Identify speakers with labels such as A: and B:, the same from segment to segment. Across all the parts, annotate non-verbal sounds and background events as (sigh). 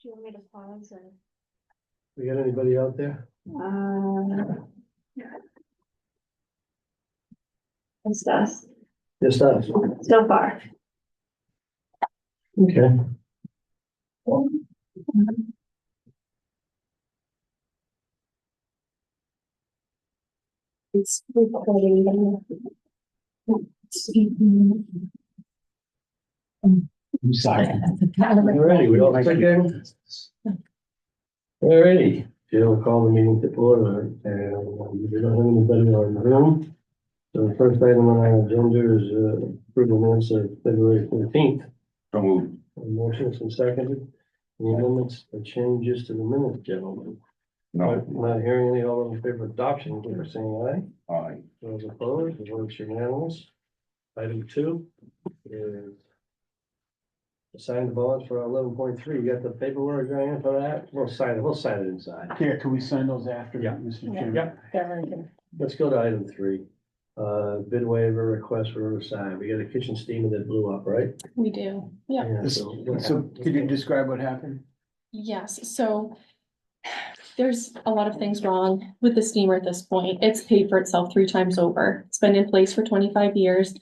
A: Do you want me to pause or?
B: We got anybody out there?
A: Um. It's us,
B: Just us,
A: so far.
B: okay.
A: It's recording.
B: I'm sorry. Alrighty, we all thinking? Alrighty, Jill will call the meeting to order, and we don't have anybody on the room. So the first item on our agenda is uh, approval minutes of February fourteenth.
C: So move.
B: Motion's been seconded. Any amendments or changes to the minutes, gentlemen?
C: No,
B: Not hearing any, all in favor of adoption, give us saying aye.
C: aye.
B: Those opposed, the vote's unanimous. Item two is assign the bonds for eleven point three. You got the paperwork, Diane, for that? We'll sign it, we'll sign it inside.
D: Yeah, can we sign those after,
B: Yeah.
D: Mr.
A: Yeah.
D: Chairman?
B: Yeah. Let's go to item three. Uh, bid waiver request for Riverside. We got a kitchen steamer that blew up, right?
E: (laughs) We do, yeah,
D: This-
B: so what
D: So
B: happened?
D: could you describe what happened?
E: yes, so. There's a lot of things wrong with the steamer at this point. It's paid for itself three times over. It's been in place for twenty-five years.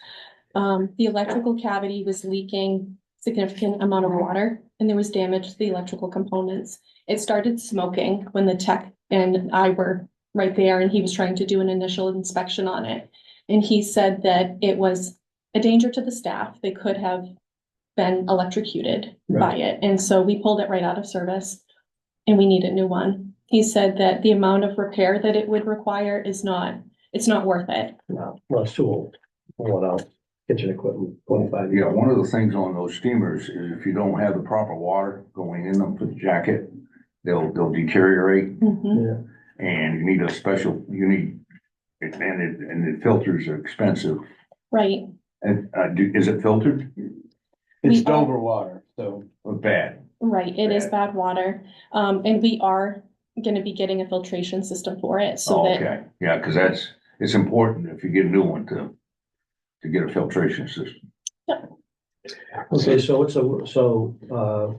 E: Um, the electrical cavity was leaking significant amount of water and there was damage to the electrical components. It started smoking when the tech and I were right there and he was trying to do an initial inspection on it. And he said that it was a danger to the staff. They could have been electrocuted by it. And so we pulled it right out of service and we need a new one. He said that the amount of repair that it would require is not, it's not worth it.
B: No, no, it's too old. What else? Kitchen equipment, twenty-five
C: Yeah,
B: years.
C: one of the things on those steamers is if you don't have the proper water going in them for the jacket, they'll, they'll deteriorate
E: Mhm.
C: and you need a special, you need, and it, and the filters are expensive.
E: Right,
C: And, uh, do, is it filtered
D: It's
E: We are-
D: Dover water, so
C: or bad?
E: right. It is bad water. Um, and we are gonna be getting a filtration system for it so
C: Oh,
E: that
C: Okay, yeah, cause that's, it's important if you get a new one to, to get a filtration system.
B: Okay, so it's a, so, uh,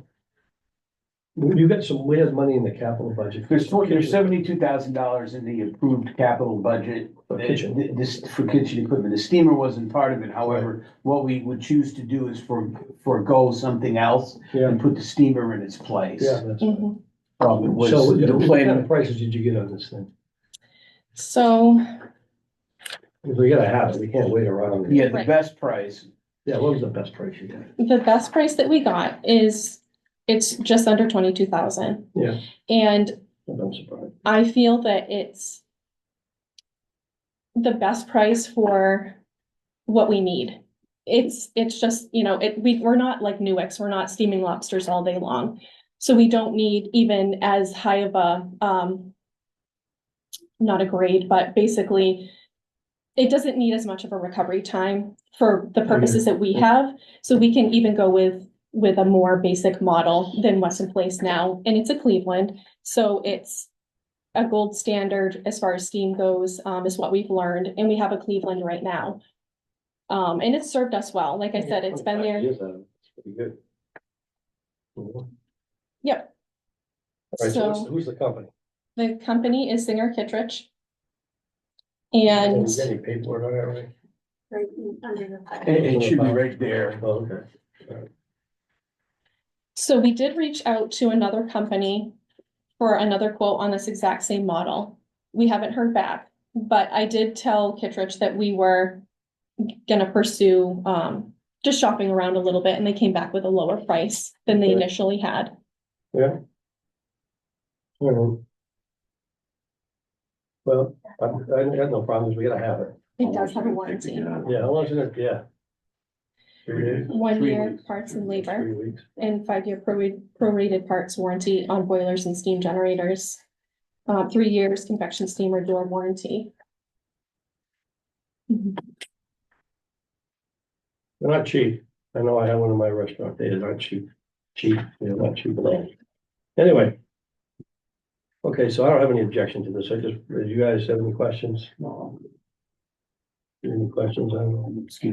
B: you got some weird money in the capital budget.
D: there's twenty, there's seventy-two thousand dollars in the approved capital budget.
B: For
D: uh,
B: kitchen.
D: th- This, for kitchen equipment. The steamer wasn't part of it. However, what we would choose to do is for, forego something else
B: Yeah,
D: and put the steamer in its place.
B: yeah, that's right.
E: Mhm.
D: Um, it was
B: So what
D: the
B: kind of
D: plan.
B: prices did you get on this thing?
E: So,
B: If we gotta have it, we can't wait around.
D: Yeah, the
E: Right.
D: best price.
B: Yeah, what was the best price you got?
E: The best price that we got is, it's just under twenty-two thousand.
B: Yeah.
E: And
B: I'm surprised.
E: I feel that it's the best price for what we need. It's, it's just, you know, it, we, we're not like Newex, we're not steaming lobsters all day long. So we don't need even as high of a, um, not a grade, but basically it doesn't need as much of a recovery time for the purposes that we have. So we can even go with, with a more basic model than what's in place now. And it's a Cleveland, so it's a gold standard as far as steam goes, um, is what we've learned, and we have a Cleveland right now. Um, and it's served us well. Like I said, it's been there.
B: Years out of it. It's Pretty good. All right, so who's-
E: So
B: who's the company?
E: the company is Singer Kittredge.
B: Did
E: And
B: you get Any paperwork on that, right?
A: Right under the.
D: It, it should be right there.
B: Oh, okay.
E: so we did reach out to another company for another quote on this exact same model. We haven't heard back, but I did tell Kittredge that we were gonna pursue, um, just shopping around a little bit, and they came back with a lower price than they
B: Okay.
E: initially had.
B: All right. Well, I, I got no problems. We gotta have it.
E: It does have a
C: Take it
E: warranty,
C: out.
B: Yeah, how long is it? Yeah. Three days?
E: one
D: Three
E: year
D: weeks.
E: parts and labor,
B: Three weeks.
E: and five-year prorate- prorated parts warranty on boilers and steam generators. Uh, three years convection steamer door warranty. Mm-hmm.
B: They're not cheap. I know I had one in my restaurant. They aren't cheap. Cheap, they're not cheap at all. Anyway. Okay, so I don't have any objection to this. I just, do you guys have any questions?
D: Um,
B: Any questions? I don't know.
D: Excuse